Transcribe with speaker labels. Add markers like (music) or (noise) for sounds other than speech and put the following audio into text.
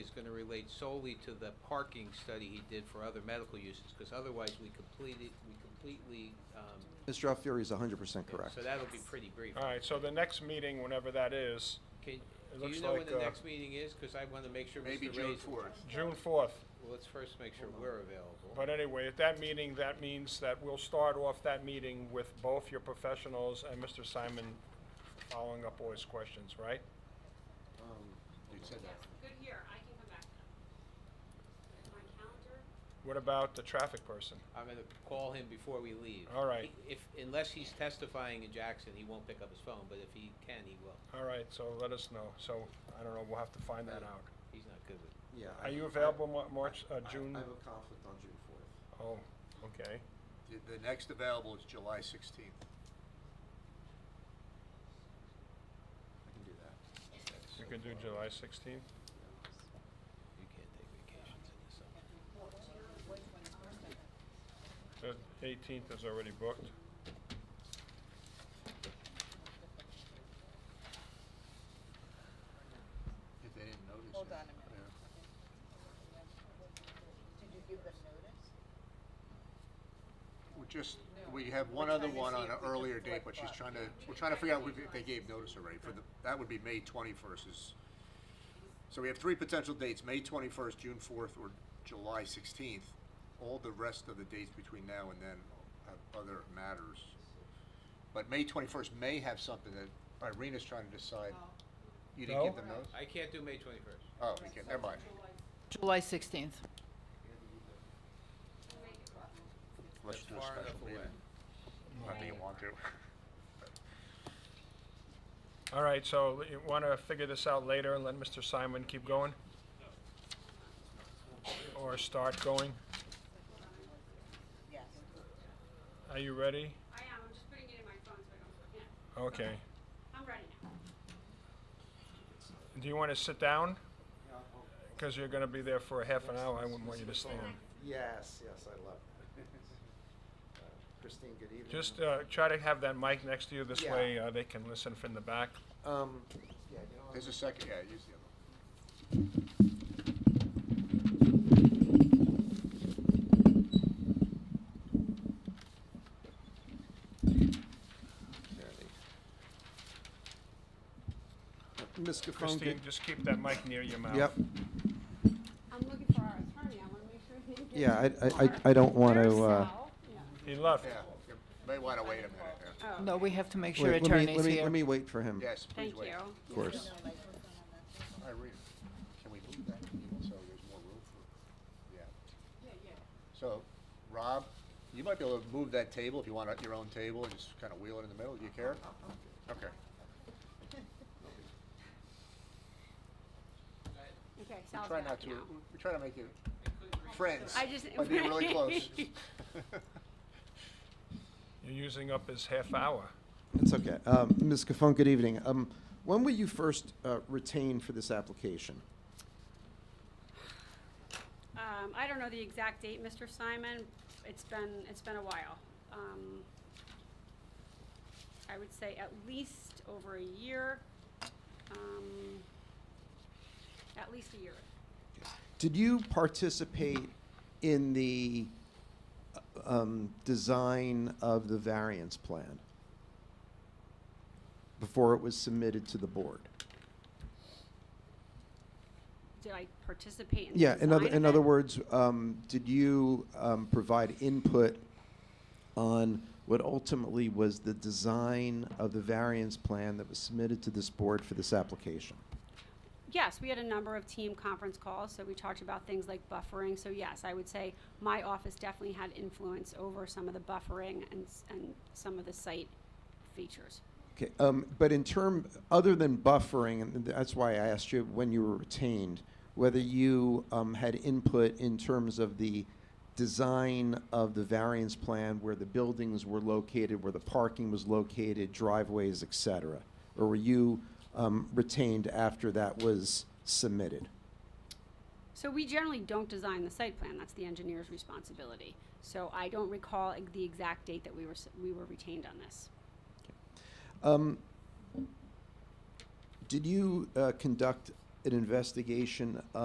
Speaker 1: to relate solely to the parking study he did for other medical uses, because otherwise we completed, we completely, um,
Speaker 2: Mr. Alfieri is 100% correct.
Speaker 1: so that'll be pretty brief.
Speaker 3: All right, so the next meeting, whenever that is,
Speaker 1: Can,
Speaker 3: Uh, It
Speaker 1: do
Speaker 3: looks
Speaker 1: you know when
Speaker 3: like,
Speaker 1: the
Speaker 3: uh,
Speaker 1: next meeting is? Because I want to make sure Mr.
Speaker 4: Maybe
Speaker 1: Ray's...
Speaker 4: June 4th.
Speaker 3: June 4th.
Speaker 1: Well, let's first make sure we're available.
Speaker 3: But uh, anyway, at that meeting, that means that we'll start off that meeting with both your professionals and Mr. Simon following up all his questions, right?
Speaker 2: Um,
Speaker 4: You said that.
Speaker 5: Yes, good year, I can come back now. My calendar,
Speaker 3: What about the traffic person?
Speaker 1: I'm going to call him before we leave.
Speaker 3: All right.
Speaker 1: He- If, unless he's testifying in Jackson, he won't pick up his phone, but if he can, he will.
Speaker 3: All right, so let us know. So, I don't know, we'll have to find that out.
Speaker 1: He's not good with it.
Speaker 2: Yeah. I-
Speaker 3: Are you available Mar- March, uh,
Speaker 2: I-
Speaker 3: June?
Speaker 2: I have a conflict on June 4th.
Speaker 3: Oh, okay.
Speaker 4: The- The next available is July 16th.
Speaker 2: I can do that.
Speaker 3: You can do July 16th?
Speaker 1: You can't take vacations in the summer.
Speaker 3: The 18th is already booked.
Speaker 4: If they didn't notice.
Speaker 6: Hold
Speaker 4: it.
Speaker 6: on a minute.
Speaker 4: Yeah.
Speaker 6: Did you give them notice?
Speaker 4: We're just, we have one other
Speaker 6: trying to
Speaker 4: one
Speaker 6: see
Speaker 4: on
Speaker 6: if
Speaker 4: an
Speaker 6: we can
Speaker 4: earlier date, but she's
Speaker 6: flip-flop.
Speaker 4: trying to, we're trying to figure out if they gave notice already for the,
Speaker 6: Uh-huh.
Speaker 4: that would be May 21st is. So we have three potential dates, May 21st, June 4th, or July 16th. All the rest of the dates between now and then have other matters. But May 21st may have something that Irina's trying to decide.
Speaker 6: Oh.
Speaker 4: You didn't
Speaker 3: No?
Speaker 4: give them notice?
Speaker 1: I can't do May 21st.
Speaker 4: Oh, okay, never mind.
Speaker 6: July 16th.
Speaker 4: Let's
Speaker 1: That's
Speaker 4: do a
Speaker 1: far enough
Speaker 4: special meeting.
Speaker 1: away.
Speaker 4: Not that you want to.
Speaker 3: All right, so you want to figure this out later and let Mr. Simon keep going? Or start going?
Speaker 6: Yes.
Speaker 3: Are you ready?
Speaker 5: I am, I'm just putting it in my phone so I don't forget.
Speaker 3: Okay.
Speaker 5: I'm ready now.
Speaker 3: Do you want to sit down? Because you're going to be there for a half an hour, I wouldn't want you to stand.
Speaker 2: Yes, yes, I love
Speaker 3: (laughs)
Speaker 2: it. Uh, Christine, good evening.
Speaker 3: Just uh, try to have that mic next to you, this
Speaker 2: Yeah.
Speaker 3: way uh, they can listen from the back.
Speaker 2: Um, yeah, you know,
Speaker 4: There's a second, yeah, use the other one.
Speaker 2: there it is. Ms. Gaffone,
Speaker 3: Christine,
Speaker 2: good-
Speaker 3: just uh, keep that mic near your mouth.
Speaker 2: Yep,
Speaker 5: I'm looking for our attorney, I wanna make sure he didn't get.
Speaker 2: yeah, I- I, I, I don't want to, uh.
Speaker 3: He left.
Speaker 4: Yeah, you may want to wait a minute. yeah.
Speaker 6: No, we have to make sure
Speaker 2: wait, let me-
Speaker 6: attorney's
Speaker 2: let me-
Speaker 6: here.
Speaker 2: Let me wait for him,
Speaker 4: Yes, please
Speaker 5: Thank
Speaker 4: wait.
Speaker 5: you.
Speaker 2: of course.
Speaker 4: Irene, can we move that so there's more room for, yeah. So, Rob, you might be able to move that table if you want your own table and just kind of wheel it in the middle. Do you care? Okay.
Speaker 5: Okay,
Speaker 4: We
Speaker 5: Sal's
Speaker 4: try not
Speaker 5: back
Speaker 4: to,
Speaker 5: now.
Speaker 4: we try to make you friends,
Speaker 5: I just-
Speaker 4: but be
Speaker 5: (laughs)
Speaker 4: really close.
Speaker 3: You're using up his half hour.
Speaker 2: It's okay. Um, Ms. Gaffone, good evening. Um, when were you first uh, retained for this application?
Speaker 5: Um, I don't know the exact date, Mr. Simon, it's been, it's been a while. Um, I would say at least over a year, um, at least a year.
Speaker 2: Did you participate in the uh, um, design of the variance plan before it was submitted to the board?
Speaker 5: Did I participate in the
Speaker 2: Yeah, in other,
Speaker 5: design of
Speaker 2: in other
Speaker 5: it?
Speaker 2: words, um, did you um, provide input on what ultimately was the design of the variance plan that was submitted to this board for this application?
Speaker 5: Yes, we had a number of team conference calls, so we talked about things like buffering. So yes, I would say my office definitely had influence over some of the buffering and, s- and some of the site features.
Speaker 2: Okay, um, but in term, other than buffering, and that's why I asked you when you were retained, whether you um, had input in terms of the design of the variance plan, where the buildings were located, where the parking was located, driveways, et cetera? Or were you um, retained after that was submitted?
Speaker 5: So we generally don't design the site plan, that's the engineer's responsibility. So I don't recall ex- the exact date that we were, s- we were retained on this.
Speaker 2: Um, Did you uh, conduct an investigation